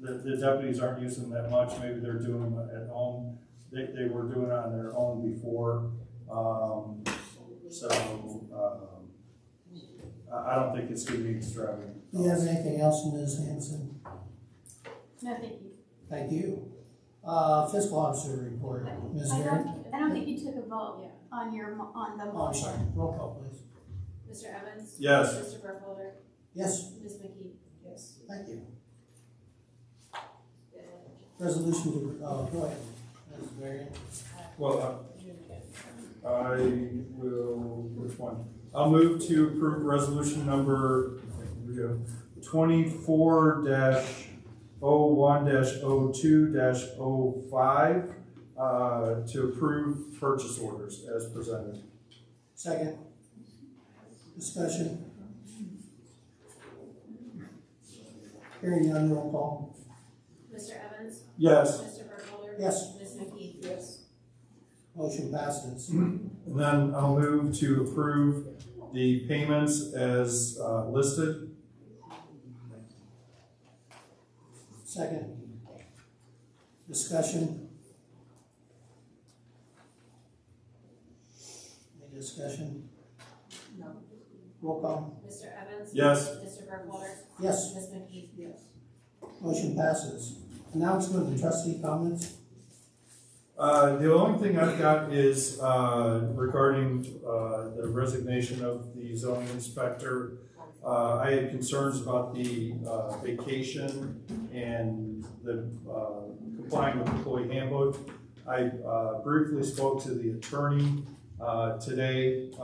the deputies aren't using them that much, maybe they're doing them at home. They, they were doing it on their own before, um, so, um, I, I don't think it's gonna be extravagant. Do you have anything else, Ms. Hanson? No, thank you. Thank you. Uh, fiscal officer report, Ms. I Garrett? don't, I don't think you took a oh, vote on your, mo- on the Oh, I'm sorry, motion. roll call, please. Mr. Evans? Yes, Mr. Burkholder? Yes, Ms. McKee? Yes. thank you. Resolution to, uh, go ahead, Ms. Garrett. well, uh, I will, which one? I'll move to approve resolution number, here we go, twenty-four dash oh one dash oh two dash oh five, uh, to approve purchase orders as presented. Second. Discussion. Hearing none, roll call. Mr. Evans? Yes, Mr. Burkholder? Yes, Ms. McKee? Yes. motion passes. and then I'll move to approve the payments as uh, listed. Second. Discussion. Any discussion? No. Roll call. Mr. Evans? Yes, Mr. Burkholder? Yes, Ms. McKee? Yes. motion passes. Announcement and trustee comments? Uh, the only thing I've got is, uh, regarding, uh, the resignation of the zoning inspector. Uh, I had concerns about the, uh, vacation and the, uh, complying with employee handbook. I, uh, briefly spoke to the attorney, uh, today, uh,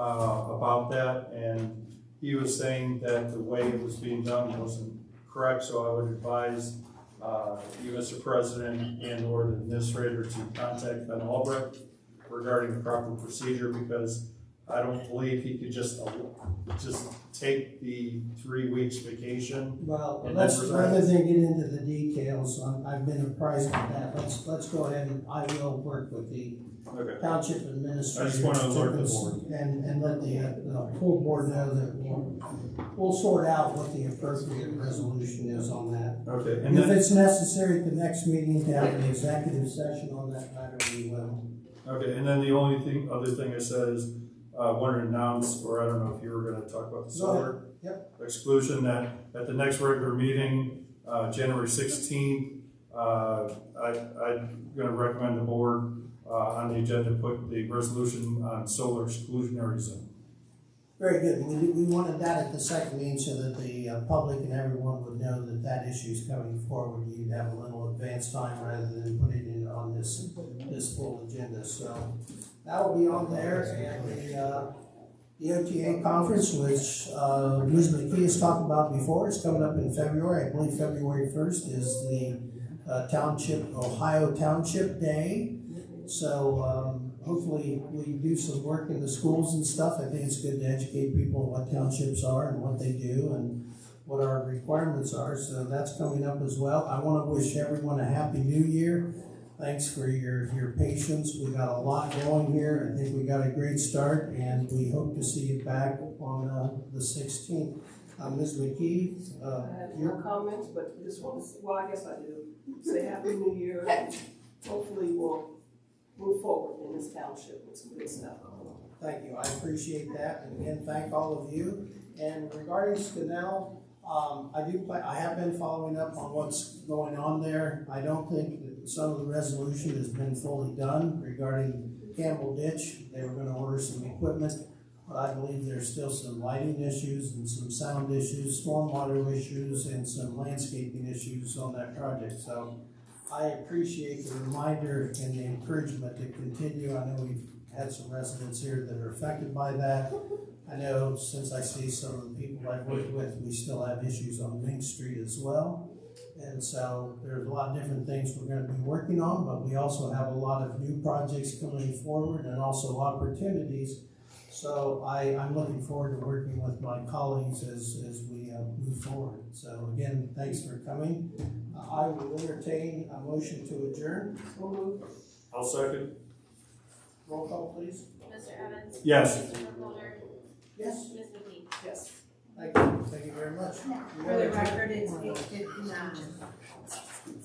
about that, and he was saying that the way it was being done wasn't correct, so I would advise uh, you, Mr. President, and or the administrator to contact Ben Albrecht regarding the proper procedure, because I don't believe he could just, uh, just take the three weeks vacation. Well, And let's, members are- rather than get into the details, I'm- I've been apprised of that, let's, let's go ahead and I will work with the Okay. township administrator. I just wanna alert the board. And, and let the, uh, the full board know that we'll, we'll sort out what the appropriate resolution is on that. Okay, and If then, it's necessary at the next meeting to have an executive session on that matter, we will. okay, and then the only thing, other thing I said is, uh, wanted to announce, or I don't know if you were gonna talk about the Go ahead. solar exclusion, that at the next regular meeting, uh, January sixteenth, uh, I, I'm gonna recommend the board, uh, on the agenda, put the resolution on solar exclusionary zone. Very good, we, we wanted that at the second meeting so that the uh, public and everyone would know that that issue is coming forward. You'd have a little advance time rather than put it in on this, this full agenda, so that'll be on there. And the, uh, the OTA conference, which, uh, Ms. McKee has talked about before, is coming up in February. I believe February first is the uh, Township, Ohio Township Day. So um, hopefully we do some work in the schools and stuff. I think it's good to educate people on what townships are and what they do and what our requirements are. So that's coming up as well. I want to wish everyone a happy new year. Thanks for your, your patience. We got a lot going here. I think we got a great start and we hope to see you back on uh, the 16th. Uh, Ms. McKee, uh, I have your no comments, but just want to, well, I guess I do, say Happy New Year. and Hopefully we'll move forward in this township with some good stuff. Thank you, I appreciate that, and again, thank all of you. And regarding Skanel, um, I do, pla- I have been following up on what's going on there. I don't think that some of the resolution has been fully done regarding Campbell Ditch. They were gonna order some equipment, but I believe there's still some lighting issues and some sound issues, stormwater issues, and some landscaping issues on that project, so I appreciate the reminder and the encouragement to continue. I know we've had some residents here that are affected by that. I know since I see some of the people I've worked with, we still have issues on Main Street as well. And so there's a lot of different things we're gonna be working on, but we also have a lot of new projects coming forward and also opportunities. So I, I'm looking forward to working with my colleagues as, as we uh, move forward. So again, thanks for coming. I will entertain a motion to adjourn. I'll second. Roll call, please. Mr. Evans? Yes. Mr. Burkholder? Yes. Ms. McKee? Yes. Thank you, thank you very much. Yeah. You For the have a- record, it's eight fifty-nine.